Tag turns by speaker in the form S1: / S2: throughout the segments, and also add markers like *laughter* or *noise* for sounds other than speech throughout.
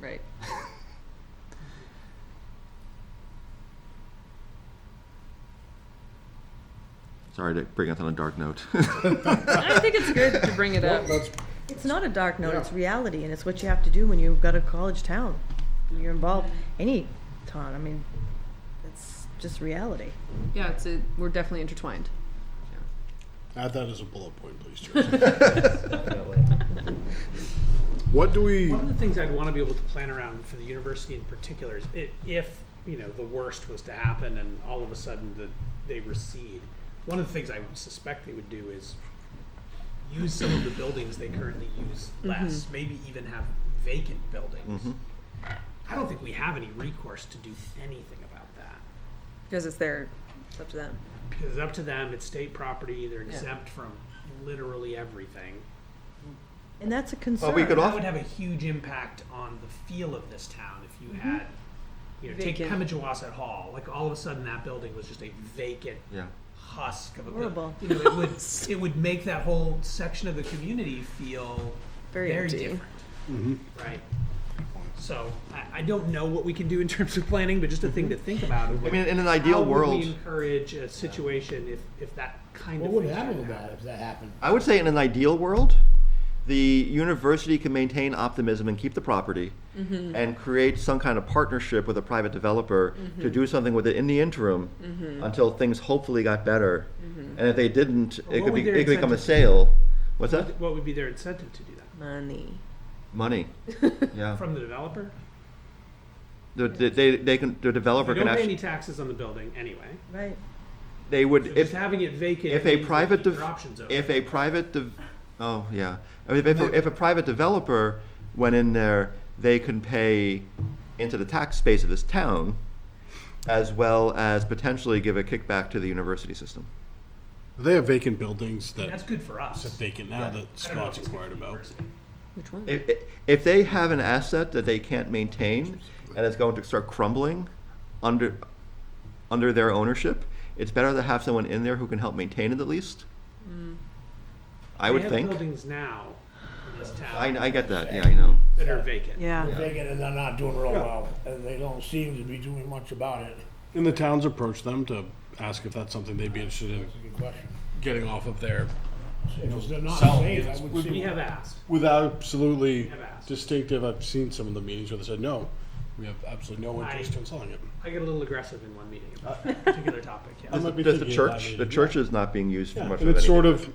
S1: Right.
S2: Sorry to bring it on a dark note.
S1: I think it's good to bring it up.
S3: That's,
S4: It's not a dark note, it's
S3: Yeah.
S4: reality, and it's what you have to do when you've got a college town. When You're involved any town, I mean, it's just reality.
S1: Yeah, it's a, we're definitely intertwined.
S3: add that as a bullet point, please, Jason. *laughs* What do we,
S5: One of the things I'd want to be able to plan around for the university in particular is i if you know the worst was to happen and all of a sudden the, they recede. One of the things I would suspect they would do is use some of the buildings they currently use less, maybe even have vacant buildings. I don't think we have any recourse to do anything about that.
S1: Because it's their, it's up to them.
S5: It's up to them. It's state property. They're exempt from literally everything.
S4: And that's a concern.
S2: we could
S5: That
S2: off-
S5: would have a huge impact on the feel of this town if you
S2: Mm-hmm.
S5: had, you know, take
S1: Vacant.
S5: Pemigewasset Hall. Like all of a sudden, that building was just a vacant
S2: yeah.
S5: husk of a
S4: Horrible.
S5: building. You know, it would
S1: *laughs*
S5: it would make that whole section of the community feel
S1: Very empty.
S5: different,
S3: Mm-hmm.
S5: right? So I, I don't know what we can do in terms of planning, but just a thing to think about.
S2: Mm-hmm. I mean, in an ideal
S5: would we
S2: world,
S5: encourage a situation if if that kind
S3: what
S5: of
S3: would
S5: thing
S3: happen
S5: started
S3: to that if that happened?
S2: *laughs* I would say in an ideal world, the university can maintain optimism and keep the property
S5: Mm-hmm.
S2: and create some kind of partnership with a private developer to
S5: Mm-hmm.
S2: do something with it in the interim until things hopefully got better. And if they didn't, it
S5: Mm-hmm.
S2: could,
S5: what would
S2: be,
S5: their
S2: it could become a
S5: incentives be?
S2: sale. What's that?
S5: What would be their incentive to do that
S4: Money.
S5: *laughs*
S2: Money. Yeah.
S5: from the developer?
S2: The, the, they, they can, the developer
S5: You
S2: can
S5: don't pay any
S2: actually,
S5: taxes on the building anyway.
S4: Right.
S2: they would,
S5: So
S2: if,
S5: just having it vacant.
S2: if a
S5: means they
S2: private,
S5: keep
S2: dev-
S5: their options open.
S2: if a private, dev- oh, yeah. I mean, if, a- if a private developer went in there, they can pay into the tax base of this town as well as potentially give a kickback to the university system.
S3: They have vacant buildings
S5: that's
S3: that
S5: good for us.
S3: sit vacant now that
S5: I don't know if
S3: Scott's
S5: it's good
S3: inquired
S5: for the
S3: about.
S5: university.
S1: Which one?
S2: If, if they have an asset that they can't maintain and it's going to start crumbling under, under their ownership, it's better to have someone in there who can help maintain it at least. I would
S5: They have
S2: think.
S5: buildings now in this
S2: I,
S5: town
S2: I get that, yeah, I know.
S5: that are vacant.
S4: Yeah.
S6: Vacant and they're not doing real well, and they don't seem to be doing much about it.
S3: And the towns approached them to ask if that's something they'd be interested in
S6: Good question.
S3: getting off of their.
S6: If they're not
S3: Selling
S6: safe,
S3: it
S6: I would
S3: would
S6: see.
S5: We have asked.
S3: With absolutely
S5: Have asked.
S3: distinctive, I've seen some of the meetings where they said, no, we have absolutely no
S5: I-
S3: interest in selling it.
S5: I get a little aggressive in one meeting about that particular topic.
S3: I
S5: Yeah.
S3: might be
S2: Does the
S3: thinking about
S2: church,
S3: it.
S2: the church is not being used for
S3: Yeah,
S2: much
S3: and
S2: of
S3: it's sort
S2: anything.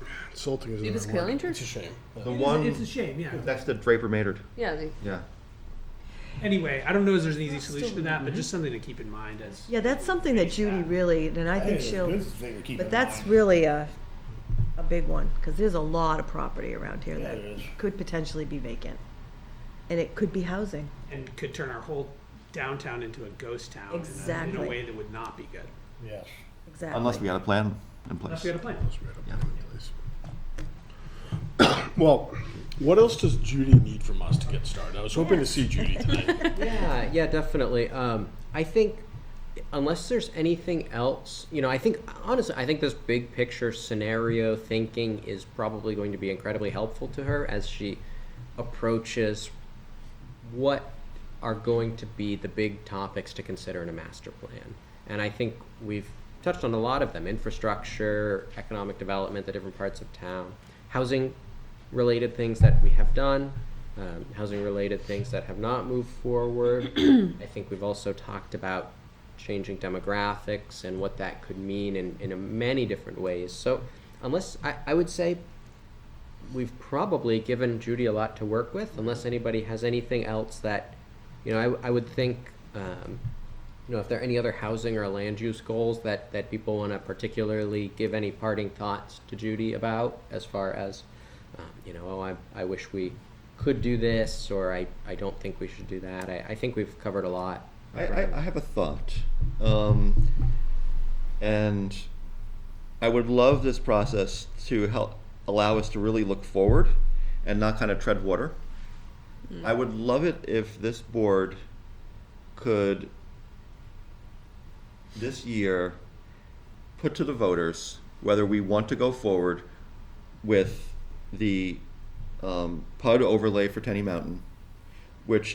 S3: of insulting. Is
S1: It is
S3: another word.
S1: Killing Church?
S3: It's a shame. but-
S2: The
S5: It's a
S2: one,
S5: shame, yeah.
S2: next to Draper Maynard,
S1: Yeah, they-
S2: yeah.
S5: Anyway, I don't know if there's an easy solution to that, but just something to keep in mind as
S4: Yeah, that's something that Judy really, and I think
S6: It's a
S4: she'll,
S6: good thing to keep
S4: but
S6: in
S4: that's
S6: mind.
S4: really a, a big one, because there's a lot of property around here that
S6: it is.
S4: could potentially be vacant. And it could be housing.
S5: and could turn our whole downtown into a ghost town in a- in a
S4: Exactly.
S5: way that would not be good.
S6: Yes.
S4: Exactly.
S2: Unless we got a plan in
S5: Unless
S2: place.
S5: we had a plan.
S3: Well, what else does Judy need from us to get started? I was hoping to see Judy tonight.
S7: Yeah, yeah, definitely. Um, I think unless there's anything else, you know, I think honestly, I think this big picture scenario thinking is probably going to be incredibly helpful to her as she approaches what are going to be the big topics to consider in a master plan. And I think we've touched on a lot of them infrastructure, economic development, the different parts of town, housing related things that we have done, um, housing related things that have not moved forward. I think we've also talked about changing demographics and what that could mean in, in a many different ways. So, unless I, I would say we've probably given Judy a lot to work with, unless anybody has anything else that, you know, I, I would think, um, you know, if there are any other housing or land use goals that, that people want to particularly give any parting thoughts to Judy about, as far as, um, you know, oh, I, I wish we could do this, or I, I don't think we should do that. I, I think we've covered a lot.
S2: I, I, I have a thought. Um, and I would love this process to help allow us to really look forward and not kind of tread water. I would love it if this board could this year put to the voters whether we want to go forward with the um, PUD overlay for Tenny Mountain which